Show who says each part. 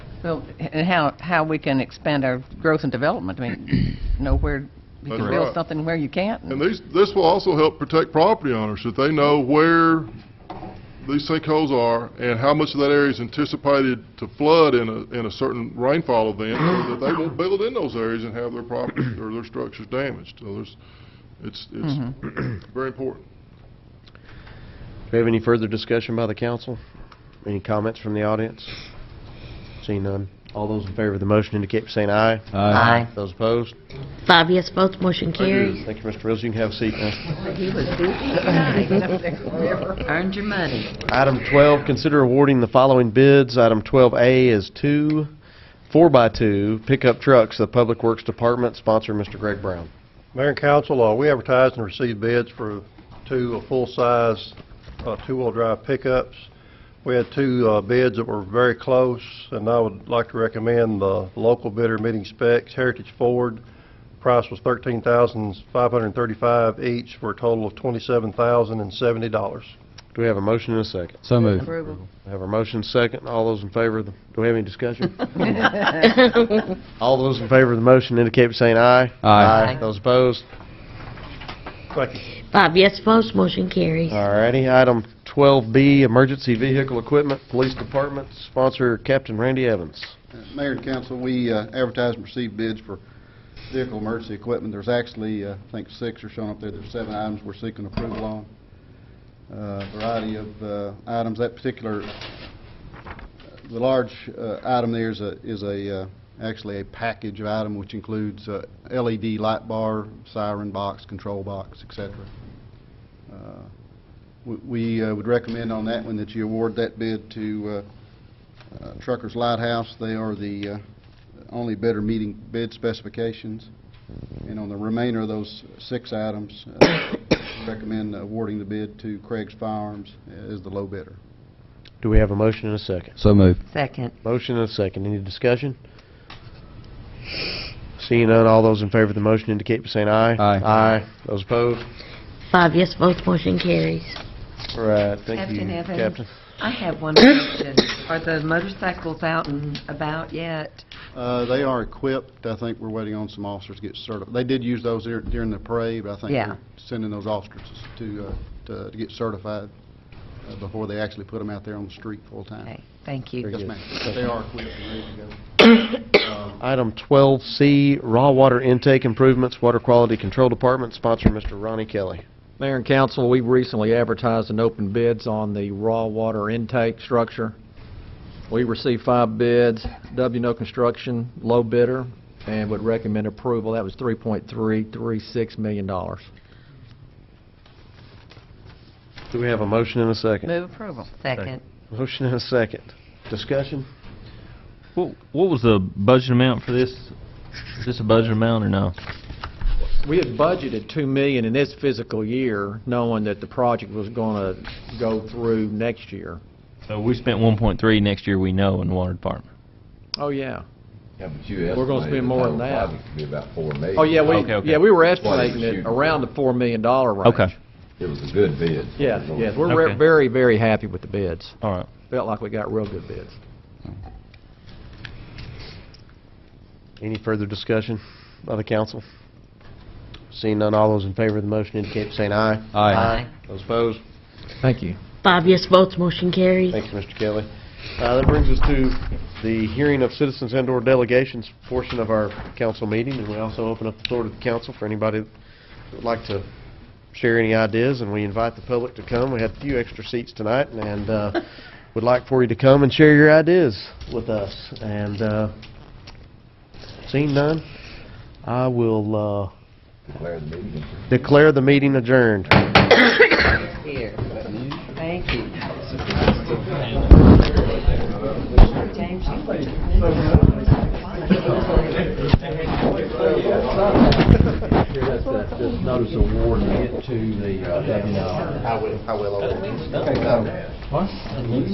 Speaker 1: Well, and how, how we can expand our growth and development, I mean, know where you can
Speaker 2: That's
Speaker 1: build
Speaker 2: right.
Speaker 1: something where you can't.
Speaker 2: And these, this will also help protect property owners, that they know where these sinkholes are and how much of that area is anticipated to flood in a, in a certain rainfall event, so that they won't build in those areas and have their property or their structures damaged. So there's, it's, it's very important.
Speaker 3: Do we have any further discussion by the council? Any comments from the audience? Seeing none. All those in favor of the motion indicate by saying aye.
Speaker 4: Aye.
Speaker 3: Those opposed?
Speaker 4: Five yes votes, motion carries.
Speaker 3: Thank you, Mr. Rose. You can have a seat now.
Speaker 4: He was busy Earned your money.
Speaker 3: Item 12, consider awarding the following bids. Item 12A is two 4x2 pickup trucks to the Public Works Department, sponsor Mr. Greg Brown.
Speaker 5: Mayor and council, uh, we advertised and received bids for two uh, full-size uh, two-wheel-drive pickups. We had two uh, bids that were very close, and I would like to recommend the local bidder meeting specs, Heritage Ford. Price was $13,535 each for a total of $27,070.
Speaker 3: Do we have a motion and a second?
Speaker 4: So moved. Approval.
Speaker 3: We have a motion and a second. All those in favor of the, do we have any discussion? All those in favor of the motion indicate by saying aye.
Speaker 4: Aye.
Speaker 3: Those opposed?
Speaker 5: Thank you.
Speaker 4: Five yes votes, motion carries.
Speaker 3: All righty. Item 12B, emergency vehicle equipment, police department, sponsor Captain Randy Evans.
Speaker 6: Uh, Mayor and council, we uh, advertised and received bids for vehicle emergency equipment. There's actually, uh, I think, six are shown up there. There's seven items we're seeking approval on. Uh, Variety of uh, items. That particular, the large uh, item there is a, is a, uh, actually a package of item which includes uh, LED light bar, siren box, control box, et cetera. Uh, we- We uh, would recommend on that one that you award that bid to uh, uh, Truckers Lighthouse, they are the uh, only bidder meeting bid specifications. And on the remainder of those six items, uh, recommend awarding the bid to Craig's Firearms as the low bidder.
Speaker 3: Do we have a motion and a second?
Speaker 4: So moved. Second.
Speaker 3: Motion and a second. Any discussion? Seeing none, all those in favor of the motion indicate by saying aye.
Speaker 4: Aye.
Speaker 3: Aye. Those opposed?
Speaker 4: Five yes votes, motion carries.
Speaker 3: All right, thank you,
Speaker 7: Captain Evans?
Speaker 3: Captain.
Speaker 7: I have one question. Are the motorcycles out and about yet?
Speaker 6: Uh, They are equipped, I think we're waiting on some officers to get certified. They did use those dur- during the parade, but I think
Speaker 7: Yeah.
Speaker 6: they're sending those officers to, uh, to to get certified uh, before they actually put them out there on the street full-time.
Speaker 7: Okay, thank you.
Speaker 3: Very
Speaker 6: Yes,
Speaker 3: good.
Speaker 6: ma'am, they are equipped and ready to go.
Speaker 3: Item 12C, raw water intake improvements, Water Quality Control Department, sponsor Mr. Ronnie Kelly.
Speaker 8: Mayor and council, we've recently advertised and opened bids on the raw water intake structure. We received five bids, W No Construction, low bidder, and would recommend approval. That was $3.336 million.
Speaker 3: Do we have a motion and a second?
Speaker 1: Move approval.
Speaker 7: Second.
Speaker 3: Motion and a second. Discussion?
Speaker 9: What, what was the budget amount for this? Is this a budget amount or no?
Speaker 8: We had budgeted $2 million in this physical year, knowing that the project was going to go through next year.
Speaker 9: So Uh, we spent 1.3 next year, we know, in the water department.
Speaker 8: Oh, yeah.
Speaker 10: Yeah, but you estimated.
Speaker 8: We're gonna spend more than
Speaker 10: the
Speaker 8: that.
Speaker 10: total project to be about four million.
Speaker 8: Oh, yeah, we,
Speaker 9: Okay, okay.
Speaker 8: yeah, we were
Speaker 10: That's what it was
Speaker 8: estimating it
Speaker 10: shooting
Speaker 8: around the
Speaker 10: for.
Speaker 8: $4 million range.
Speaker 9: Okay.
Speaker 10: It was a good bid.
Speaker 8: Yeah, yeah, we're
Speaker 9: Okay.
Speaker 8: re- very, very happy with the bids.
Speaker 9: All right.
Speaker 8: Felt like we got real good bids.
Speaker 3: Any further discussion by the council? Seeing none, all those in favor of the motion indicate by saying aye.
Speaker 9: Aye.
Speaker 3: Those opposed?
Speaker 8: Thank you.
Speaker 4: Five yes votes, motion carries.
Speaker 3: Thank you, Mr. Kelly. Uh, That brings us to the hearing of citizens and/or delegations portion of our council meeting, and we also open up the floor to the council for anybody that would like to share any ideas, and we invite the public to come. We had a few extra seats tonight, and uh, would like for you to come and share your ideas with us. And uh, seeing none, I will
Speaker 10: Declare the meeting.
Speaker 3: uh, declare the meeting adjourned.
Speaker 7: Here. Thank you. James, you put
Speaker 8: That's the, this notice of award to the, uh,
Speaker 10: I will, I will. Okay,